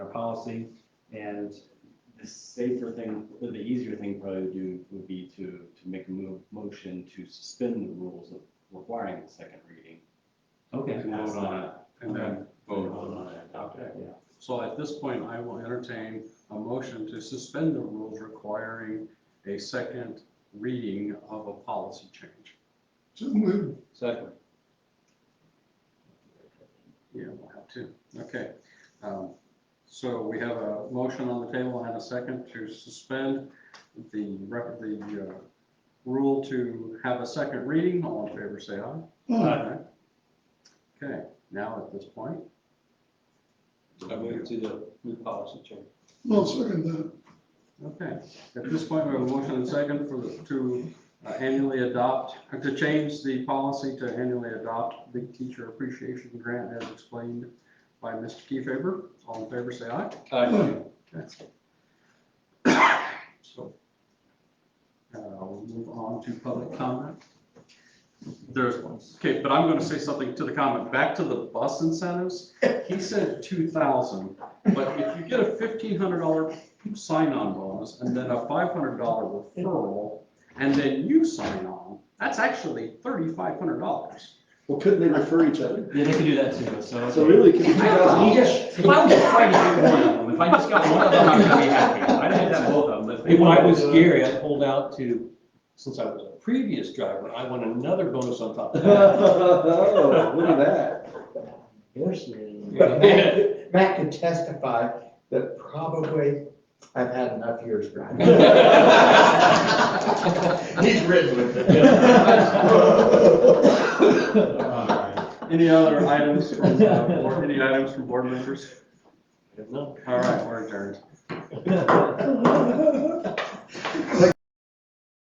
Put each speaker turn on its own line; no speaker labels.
policy. And the safer thing, or the easier thing probably to do would be to, to make a mo- motion to suspend the rules of requiring the second reading.
Okay.
And pass
Vote on
that.
and then vote.
Vote on it, adopt it, yeah.
So at this point, I will entertain a motion to suspend the rules requiring a second reading of a policy change.
So moved.
Second.
Yeah, we'll have two. Okay. Um, So we have a motion on the table and a second to suspend the, rep- the uh, rule to have a second reading. All in favor, say aye.
Aye.
Okay, now at this point.
I move to the new policy change.
I'll second that.
Okay, at this point, we have a motion and second for, the- to uh, annually adopt, uh, to change the policy to annually adopt the teacher appreciation grant as explained by Mr. Kefeber. All in favor, say aye.
Aye.
So, uh, we'll move on to public comment. There's, okay, but I'm gonna say something to the comment, back to the bus incentives. He said two thousand, but if you get a fifteen hundred dollar sign-on bonus and then a five hundred dollar referral, and then you sign on, that's actually thirty-five hundred dollars.
Well, couldn't they refer each other?
Yeah, they could do that too, so.
So really, could be
I don't know.
2,000 each?
If I was trying to get one of them, if I just got one of them, I'm gonna be happy. I'd have had both of them, but.
When I was Gary, I pulled out to, since I was a previous driver, I want another bonus on top of that.
Oh, look at that.
But Matt Matt can testify that probably I've had enough years driving. He's ridden with
Any other items from, uh, board- any items from board members?
No.
All right, we're adjourned.